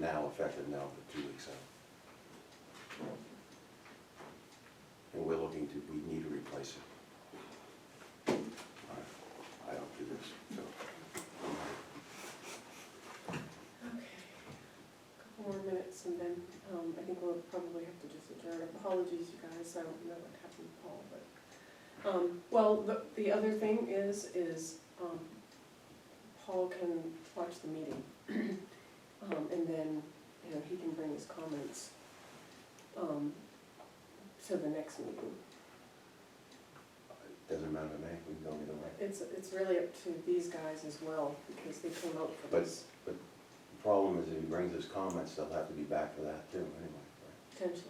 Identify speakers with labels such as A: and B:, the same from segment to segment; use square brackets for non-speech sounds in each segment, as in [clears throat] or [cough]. A: now, effective now, for two weeks out. And we're looking to, we need to replace it. I- I don't do this, so.
B: Okay. Couple more minutes and then, um, I think we'll probably have to just adjourn. Apologies, you guys, I don't know what happened to Paul, but, um, well, the, the other thing is, is, um, Paul can watch the meeting. [clears throat] Um, and then, you know, he can bring his comments, um, to the next meeting.
A: Doesn't matter to me, we can go either way.
B: It's, it's really up to these guys as well, because they came out for
A: But-
B: this,
A: The problem is if he brings his comments, they'll have to be back for that too, anyway.
B: potentially.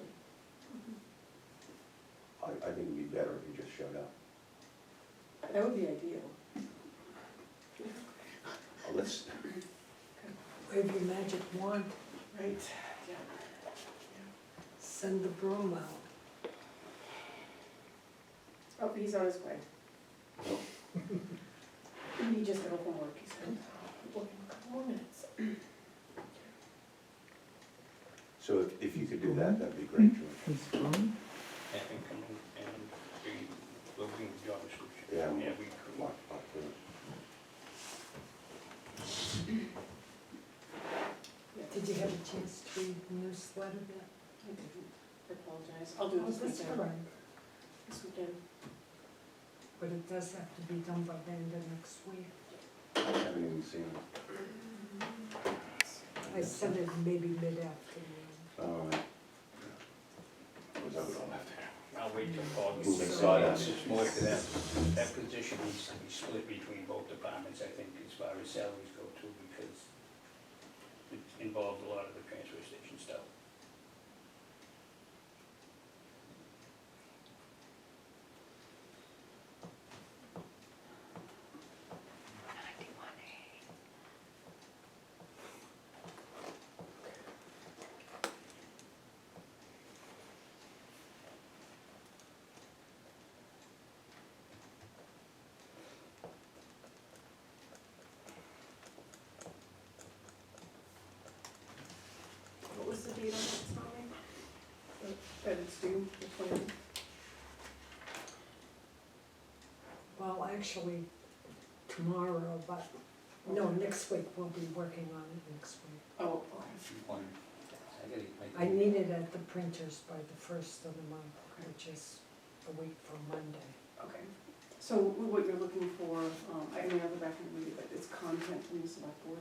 A: right? I, I think it'd be better if he just showed up.
B: That would be ideal.
A: Oh, Let's,
C: Wave your magic wand,
B: Right, yeah.
C: send the broom out.
B: Oh, he's on his way.
A: Nope.
B: He just got home from work, he said. We'll give him a couple more minutes.
A: so if, if you could do that, that'd be great, George.
D: and come in and be looking at job description.
A: Yeah.
D: Yeah, we could.
A: Mark, Mark, do it.
B: Yeah.
C: Did you have a chance to read the newsletter yet?
B: I didn't. I apologize. I'll do it
C: Oh,
B: this
C: that's all
B: weekend.
C: right.
B: This weekend.
C: But it does have to be done by the end of next week.
A: uh, Haven't even seen it.
C: I sent it maybe mid-afternoon.
A: All right. uh, Was that what I left there?
D: I'll wait till Paul. gets
A: Moving
D: back.
A: sawdust.
D: It's more to that, that position needs to be split between both departments, I think, as far as salaries go too, because it involved a lot of the transfer station stuff.
B: What was the date on that, Tommy? That Uh, it's due, the twenty.
C: Well, actually, tomorrow, but, no, next week, we'll be working on it next week.
B: Oh, okay.
D: One, I gotta make-
C: I need it at the printers by the first of the month, which is a week from Monday.
B: Okay. So what you're looking for, um, I mean, I'll go back and read it, but it's content from the select board.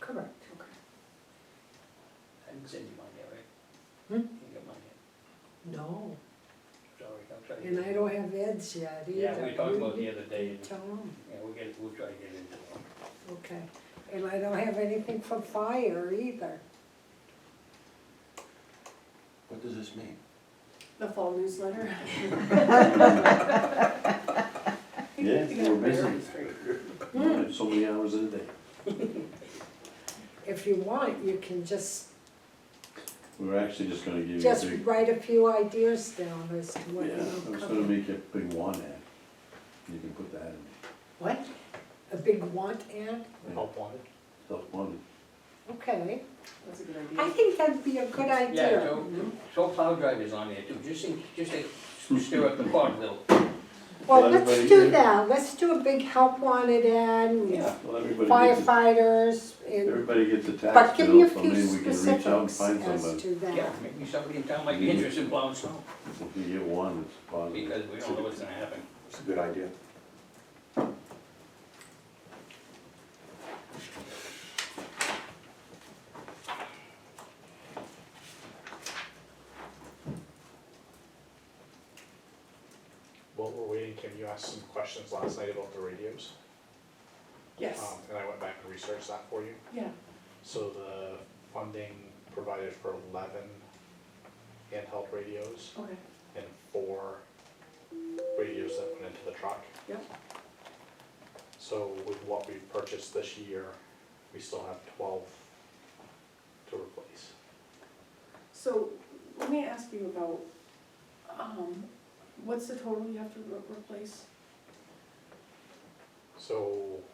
C: Correct.
B: Okay.
D: I didn't send you mine yet, right?
C: Hmm?
D: You got mine yet,
C: No,
D: sorry, I'll try. to
C: and
D: get
C: I
D: it.
C: don't have Ed's yet either.
D: Yeah, we talked about the other day, and,
C: Tell him.
D: yeah, we'll get, we'll try to get into it.
C: Okay, and I don't have anything for fire either.
A: What does this mean?
B: The fall
C: [laughs]
B: newsletter. [laughs]
E: Yeah,
B: You got
E: we're busy.
B: priorities straight.
C: Mm.
E: So many hours in a day.
C: If you want, you can just,
E: We We're actually just gonna give you a
C: just
E: big,
C: write a few ideas down as to what
E: yeah, I
C: you'll
E: was gonna
C: cover.
E: make you a big one ad. You can put that in,
C: What? A big want ad?
D: Help wanted?
E: self-funded.
C: Okay,
B: That's a good idea.
C: I think that'd be a good
D: Yeah,
C: idea.
D: Joe, Joe Plow Driver's on there too, just in, just to stir up the pot a little.
C: Well,
E: Let
C: let's
E: everybody
C: do
E: in.
C: that, let's do a big help wanted ad, and
E: Well, everybody gets, a-
C: firefighters, and,
E: everybody gets a
C: but
E: tax
C: give me
E: bill,
C: a
E: so
C: few
E: maybe we can reach out and
C: specifics
E: find
C: as
E: somebody.
C: to that.
D: Yeah, maybe somebody in town might be interested in plowing snow,
E: If you get one, it's positive.
D: because we don't know what's gonna happen.
A: It's a good idea.
F: While we're waiting, Kim, you asked some questions last night about the radios.
B: Yes,
F: um, And I went back and researched that for you.
B: yeah.
F: So the funding provided for eleven handheld radios
B: Okay,
F: and four radios that went into the truck.
B: Yep.
F: So with what we purchased this year, we still have twelve to replace.
B: so let me ask you about, um, what's the total you have to re- replace?
F: So